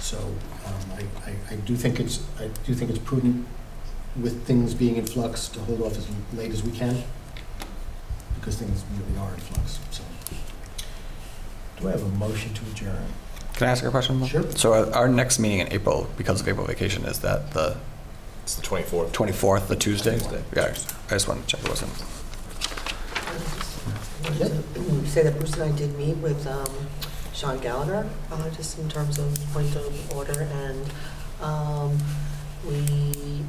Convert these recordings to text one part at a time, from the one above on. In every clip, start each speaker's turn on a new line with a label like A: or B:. A: So um, I- I- I do think it's, I do think it's prudent with things being in flux to hold off as late as we can, because things really are in flux, so. Do I have a motion to adjourn?
B: Can I ask a question? Mark?
A: Sure.
B: So our- our next meeting in April, because of April vacation, is that the
C: It's the 24th.
B: 24th, the Tuesday?
C: Tuesday.
B: Yeah, I just wanted to check it wasn't.
D: Say that Bruce and I did meet with um, Sean Gallagher, uh, just in terms of point of order, and um, we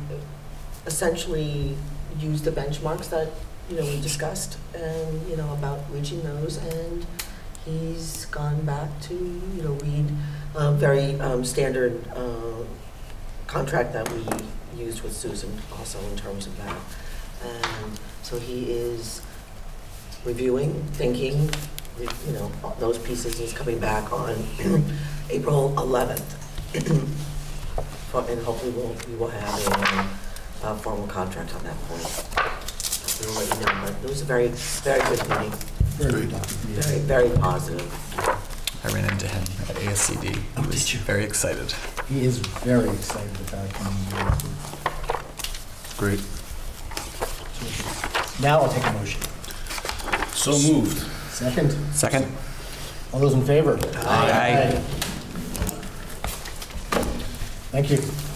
D: essentially used the benchmarks that, you know, we discussed, and, you know, about reaching those, and he's gone back to, you know, read a very um, standard uh, contract that we used with Susan also in terms of that. And so he is reviewing, thinking, you know, those pieces, he's coming back on April 11th. For- And hopefully we'll, we will have a, uh formal contract on that point. We'll let you know, but it was a very, very good meeting,
A: Very productive meeting.
D: very, very positive.
B: I ran into him at ASCD.
A: Oh,
B: He was
A: did you?
B: very excited.
A: He is very excited about coming here.
C: Great.
A: So, Now I'll take a motion.
C: So moved.
A: Second,
B: Second?
A: all those in favor?
B: Aye.
A: Thank you.